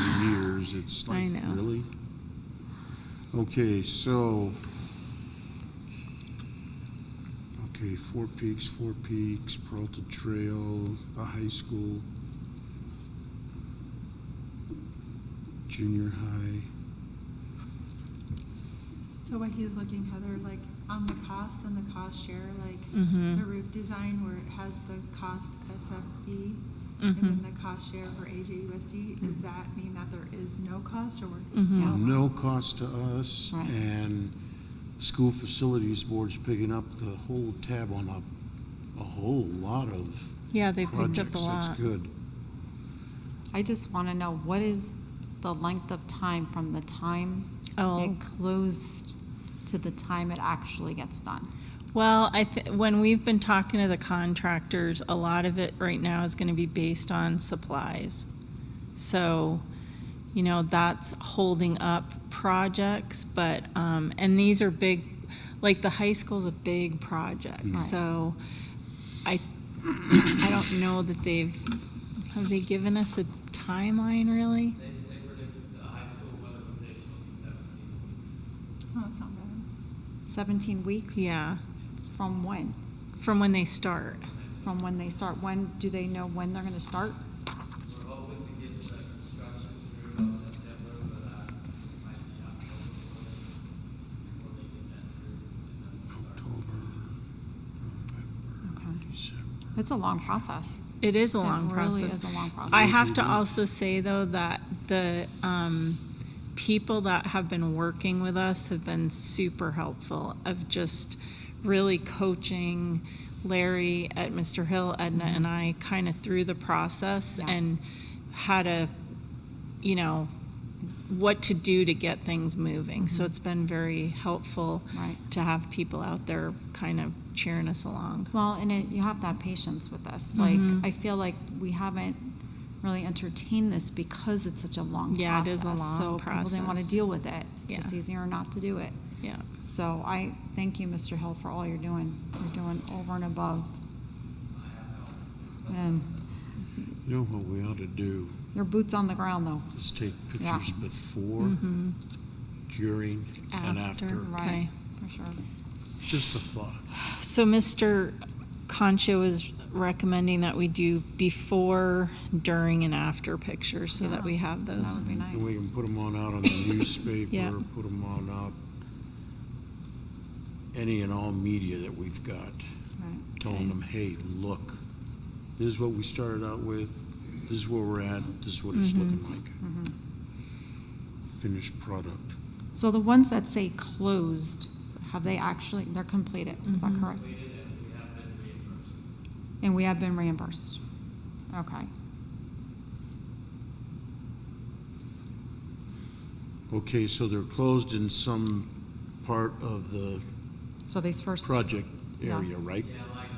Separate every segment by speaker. Speaker 1: years, it's
Speaker 2: I
Speaker 1: like,
Speaker 2: know.
Speaker 1: really? Okay, so. Okay, Four Peaks, Four Peaks, Peralta Trail, the high school. Junior high.
Speaker 3: So what he's looking, Heather, like on the cost and the cost share, like
Speaker 2: Mhm.
Speaker 3: the roof design where it has the cost SFB and
Speaker 2: Mhm.
Speaker 3: then the cost share for AJUSD, does that mean that there is no cost or? we're-
Speaker 2: Mhm.
Speaker 3: Yeah.
Speaker 1: No cost to us,
Speaker 4: Right.
Speaker 1: and school facilities board's picking up the whole tab on a, a whole lot of
Speaker 2: Yeah, they picked
Speaker 1: projects.
Speaker 2: up a
Speaker 1: That's
Speaker 2: lot.
Speaker 1: good.
Speaker 4: I just want to know, what is the length of time from the time
Speaker 2: Oh.
Speaker 4: it closed to the time it actually gets done?
Speaker 2: Well, I th- when we've been talking to the contractors, a lot of it right now is going to be based on supplies. So, you know, that's holding up projects, but, um, and these are big, like the high school's a big project,
Speaker 1: Mm.
Speaker 4: Right.
Speaker 2: so I, I don't know that they've, have they given us a timeline really?
Speaker 5: They, they predicted the high school weatherization
Speaker 3: Oh,
Speaker 5: will be seventeen weeks.
Speaker 3: that's not bad.
Speaker 4: 17 weeks?
Speaker 2: Yeah,
Speaker 4: From when?
Speaker 2: from when they start.
Speaker 4: From when they start? When, do they know when they're going to start?
Speaker 5: We're hoping to get the construction through about September, but, uh, it might be October before they, before they get that through. and then we'll start.
Speaker 1: October, November,
Speaker 4: Okay.
Speaker 1: December.
Speaker 4: It's a long process.
Speaker 2: It is a
Speaker 4: It
Speaker 2: long
Speaker 4: really
Speaker 2: process.
Speaker 4: is a long process.
Speaker 2: I have to
Speaker 1: Mhm.
Speaker 2: also say, though, that the um, people that have been working with us have been super helpful of just really coaching Larry at Mr. Hill, Edna, and I kind of through the process
Speaker 4: Mm-hmm. Yeah.
Speaker 2: and how to, you know, what to do to get things moving. So it's been very helpful
Speaker 4: Mm-hmm. Right.
Speaker 2: to have people out there kind of cheering us along.
Speaker 4: Well, and it, you have to have patience with this.
Speaker 2: Mhm.
Speaker 4: Like, I feel like we haven't really entertained this because it's such a long
Speaker 2: Yeah, it
Speaker 4: process.
Speaker 2: is a long
Speaker 4: So people didn't want to
Speaker 2: process.
Speaker 4: deal with it. It's just
Speaker 2: Yeah.
Speaker 4: easier not to do it.
Speaker 2: Yeah.
Speaker 4: So I thank you, Mr. Hill, for all you're doing. You're doing over and above. And
Speaker 1: You know what we ought to do
Speaker 4: your boots on the ground, though.
Speaker 1: is take
Speaker 4: Yeah.
Speaker 1: pictures before,
Speaker 2: Mhm.
Speaker 1: during, and after.
Speaker 2: Okay.
Speaker 4: Right, for sure.
Speaker 1: Just a thought.
Speaker 2: So Mr. Concha was recommending that we do before, during, and after pictures so that we have
Speaker 4: That
Speaker 2: those.
Speaker 4: would be
Speaker 1: And we
Speaker 4: nice.
Speaker 1: can put them on out on the
Speaker 2: Yeah.
Speaker 1: newspaper, put them on out, any and all media that we've got,
Speaker 4: Right.
Speaker 1: telling them, hey, look, this is what we started out with, this is where we're at, this is what it's looking like. Finished product.
Speaker 4: So the ones that say closed, have they actually, they're completed, is
Speaker 2: Mm-hmm.
Speaker 4: that correct? And we have been reimbursed. Okay.
Speaker 1: Okay, so they're closed in some part of the
Speaker 4: So these first,
Speaker 1: project
Speaker 4: Yeah.
Speaker 1: area, right?
Speaker 5: Yeah, like,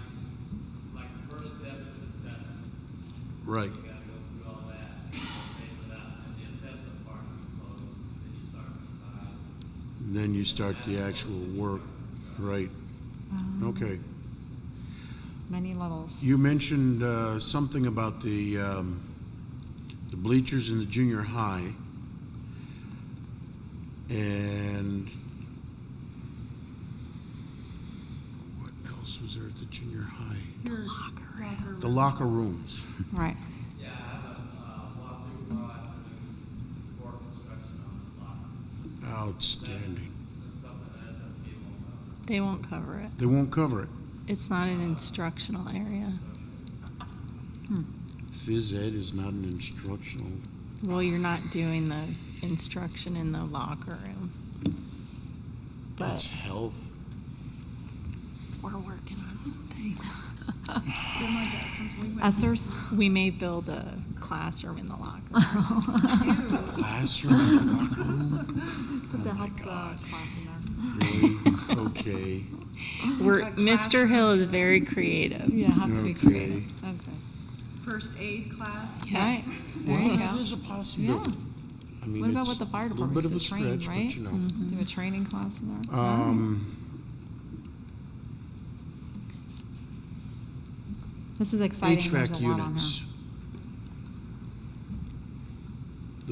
Speaker 5: like the first step is assessment.
Speaker 1: Right.
Speaker 5: You gotta go through all that, so you're okay with that, since the assessment part will be closed, then you start with the size.
Speaker 1: Then you start the actual work, right? Okay.
Speaker 4: many levels.
Speaker 1: You mentioned uh, something about the, um, the bleachers in the junior high. And what else was there at the junior high? The locker rooms.
Speaker 4: Right.
Speaker 5: Yeah, I have a, uh, walkthrough tomorrow afternoon for construction on the block.
Speaker 1: Outstanding.
Speaker 5: That's something that SFP
Speaker 2: They won't
Speaker 5: won't cover.
Speaker 2: cover it.
Speaker 1: They won't cover it.
Speaker 2: It's not an instructional area.
Speaker 1: Phys ed is not an instructional.
Speaker 2: Well, you're not doing the instruction in the locker room.
Speaker 1: That's
Speaker 2: But
Speaker 1: health.
Speaker 2: we're working on something.
Speaker 3: Been like that since we went.
Speaker 4: Essers?
Speaker 2: We may build a classroom in the locker room.
Speaker 1: Classroom, locker room?
Speaker 4: Put the
Speaker 1: Oh my
Speaker 4: health uh,
Speaker 1: God.
Speaker 4: class in
Speaker 1: Really? Okay.
Speaker 2: We're,
Speaker 3: A
Speaker 2: Mr. Hill is very creative.
Speaker 4: there. Yeah, have to be
Speaker 1: Okay.
Speaker 4: creative. Okay.
Speaker 3: First aid class.
Speaker 4: Right.
Speaker 2: Yes.
Speaker 4: There you
Speaker 1: Well,
Speaker 4: go.
Speaker 1: that is a possibility. I mean,
Speaker 4: What about
Speaker 1: it's
Speaker 4: what the fire
Speaker 1: a little bit
Speaker 4: department
Speaker 1: of a
Speaker 4: used to train,
Speaker 1: stretch, but
Speaker 4: right? Mm-hmm.
Speaker 1: you know.
Speaker 2: Mm-hmm.
Speaker 4: Do a training class in there?
Speaker 1: Um,
Speaker 4: This is exciting. There's a
Speaker 1: HVAC
Speaker 4: lot on
Speaker 1: units.